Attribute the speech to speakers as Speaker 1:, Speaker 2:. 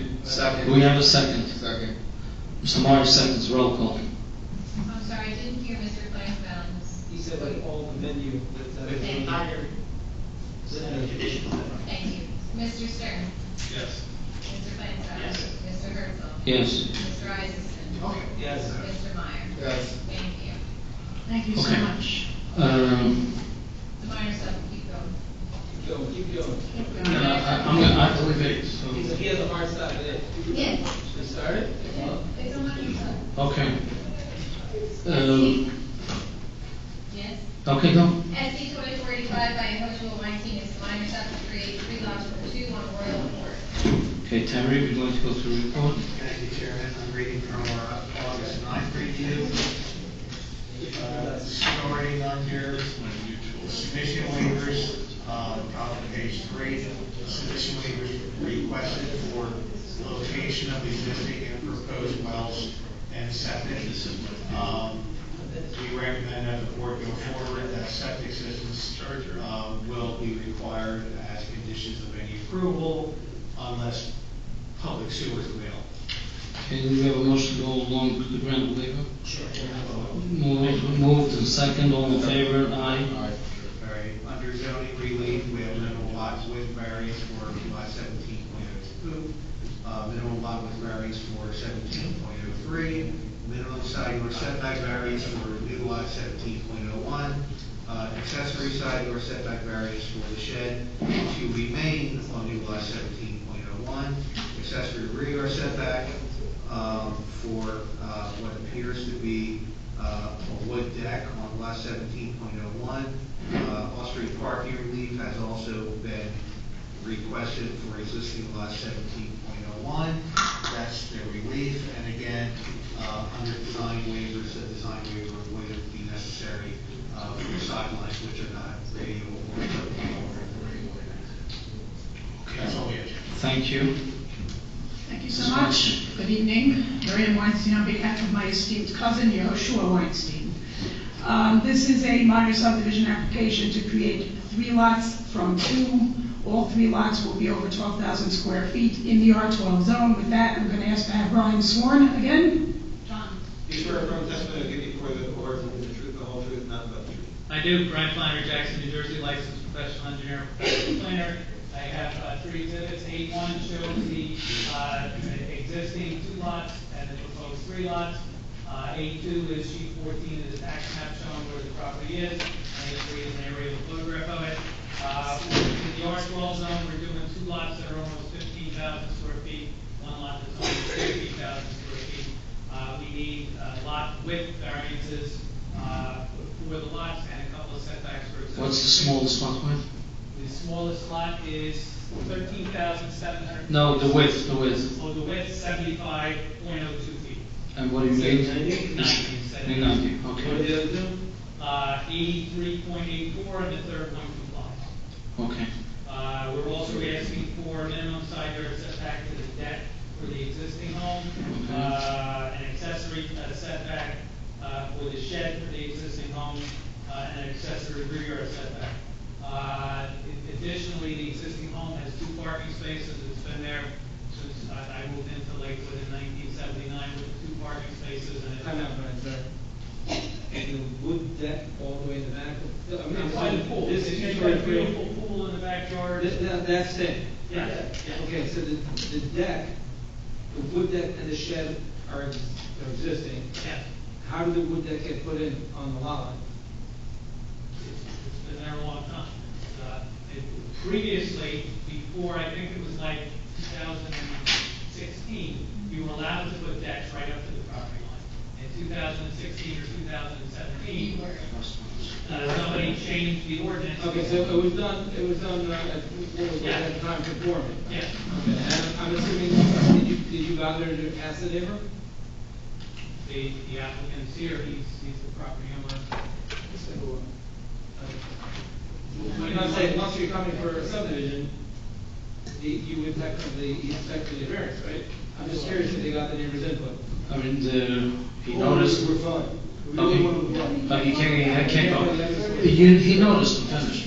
Speaker 1: Do we have a second?
Speaker 2: Second.
Speaker 1: Mr. Meyer seconds, roll call.
Speaker 3: I'm Oh, sorry, I didn't hear Mr. Flansbrough's.
Speaker 4: He said like all the venue, but,
Speaker 5: With the
Speaker 4: uh,
Speaker 5: entire set of conditions.
Speaker 3: Thank you. Mr. Stern?
Speaker 2: Yes.
Speaker 3: Mr. Flansbrough?
Speaker 5: Yes.
Speaker 3: Mr. Herzl?
Speaker 1: Yes.
Speaker 3: Mr. Isaacson?
Speaker 4: yes.
Speaker 3: Mr. Meyer?
Speaker 2: Yes.
Speaker 3: Thank you.
Speaker 6: Thank you so
Speaker 1: Okay.
Speaker 6: much.
Speaker 1: Um,
Speaker 3: The minor sub, keep going.
Speaker 4: Keep going, keep going.
Speaker 6: Keep
Speaker 1: no,
Speaker 6: going.
Speaker 1: I- I'm gonna, I have to leave it, so.
Speaker 4: He's, he has a hard stop today.
Speaker 3: Yes.
Speaker 4: Should we start it?
Speaker 3: It's a minor sub.
Speaker 1: Okay. Um,
Speaker 3: Yes.
Speaker 1: okay, go.
Speaker 3: SC twenty forty-five by Hoshua Weinstein is the minor sub to create three lots for two on Royal Court.
Speaker 1: Okay, Tammy, would you like to go through the report?
Speaker 7: Thank you, Chairman. I'm reading from our August 9th review. Uh, Starting under submission waivers, uh, on page three, submission waivers requested for location of existing and proposed wells and septic. Um, We recommend that the board go forward, that septic systems uh, will be required as conditions of any approval unless public sewer is available.
Speaker 1: Okay, do we have a motion to go along with the grant waiver? Move, moved and second, all in favor, aye.
Speaker 2: Aye.
Speaker 7: All right, under zoning relief, we have minimum lot width variance for lot seventeen point oh two, uh, minimum lot width variance for seventeen point oh three, minimum side yard setback variance for new lot seventeen point oh one, uh, accessory side yard setback variance for the shed to remain on new lot seventeen point oh one, accessory rear yard setback, um, for, uh, what appears to be, uh, a wood deck on lot seventeen point oh one. Uh, off-street parking relief has also been requested for existing lot seventeen point oh one. That's the relief, and again, uh, under design waivers, the design waiver would be necessary, uh, for sidelines which are not radio or. Okay, That's all we have. Jim.
Speaker 1: Thank you.
Speaker 6: Thank you so much. Good evening. Maria Weinstein on behalf of my esteemed cousin, Yehoshua Weinstein. Um, This is a minor subdivision application to create three lots from two. All three lots will be over 12,000 square feet in the R12 zone. With that, I'm going to ask to have Brian sworn again.
Speaker 3: John?
Speaker 4: You swear affirm testimony will give you before the board the truth, the whole truth, nothing but the truth.
Speaker 8: I do, Brian Flannery Jackson, New Jersey licensed professional engineer, and professional planner. I have uh, three exhibits, A one shows the uh, existing two lots and the proposed three lots. A two is sheet fourteen of the tax map showing where the property is, and A three is an aerial photograph of it. Uh, In the R twelve zone, we're doing two lots that are almost fifteen thousand square feet, one lot that's only fifteen thousand square feet. Uh, We need uh, lot width variances uh, for the lots and a couple of setbacks for existing.
Speaker 1: What's the smallest lot width?
Speaker 8: The smallest lot is thirteen thousand seven hundred.
Speaker 1: No, the width, the width.
Speaker 8: Oh, the width, seventy-five point oh two feet.
Speaker 1: And what do you need?
Speaker 8: Ninety, ninety.
Speaker 1: Ninety,
Speaker 4: What are
Speaker 1: okay,
Speaker 4: the other two?
Speaker 8: Uh, eighty-three point eight four, and the third one complies.
Speaker 1: okay.
Speaker 8: Uh, we're also asking for minimum side yard setback to the deck for the existing home, uh, an accessory uh, setback, uh, for the shed for the existing home, uh, and an accessory rear yard setback. Uh, additionally, the existing home has two parking spaces, it's been there since I, I moved into Lakewood in nineteen seventy-nine with two parking spaces and.
Speaker 4: Time out, Brian, sorry. And the wood deck all the way in the back? I mean,
Speaker 8: It's a pool,
Speaker 4: This
Speaker 8: it's
Speaker 4: is
Speaker 8: a
Speaker 4: your
Speaker 8: beautiful pool in the backyard.
Speaker 4: This- that- That's it?
Speaker 8: Yeah, yeah.
Speaker 4: Okay, so the, the deck, the wood deck and the shed are ex- are existing.
Speaker 8: Yeah.
Speaker 4: How did the wood deck get put in on the lot line?
Speaker 8: It's been there a long time. Uh, it- Previously, before, I think it was like 2016, you were allowed to put decks right up to the property line. In 2016 or 2017, uh, somebody changed the ordinance.
Speaker 4: Okay, so it was done, it was done, uh, at, what was it, at the time conforming?
Speaker 8: Yeah.
Speaker 4: Okay, and I'm assuming, did you, did you bother to ask the neighbor?
Speaker 8: The the applicant's here, he's he's the property owner.
Speaker 4: I'm not saying, once you're coming for a subdivision, the- you would technically inspect the variance, right? I'm just curious if they got the neighbor's input.
Speaker 1: I mean, the, he noticed,
Speaker 2: We're fine. We
Speaker 1: Okay.
Speaker 2: don't want to.
Speaker 1: but he can't, he can't
Speaker 4: Yeah,
Speaker 1: go.
Speaker 4: but-
Speaker 1: He, he noticed and finished.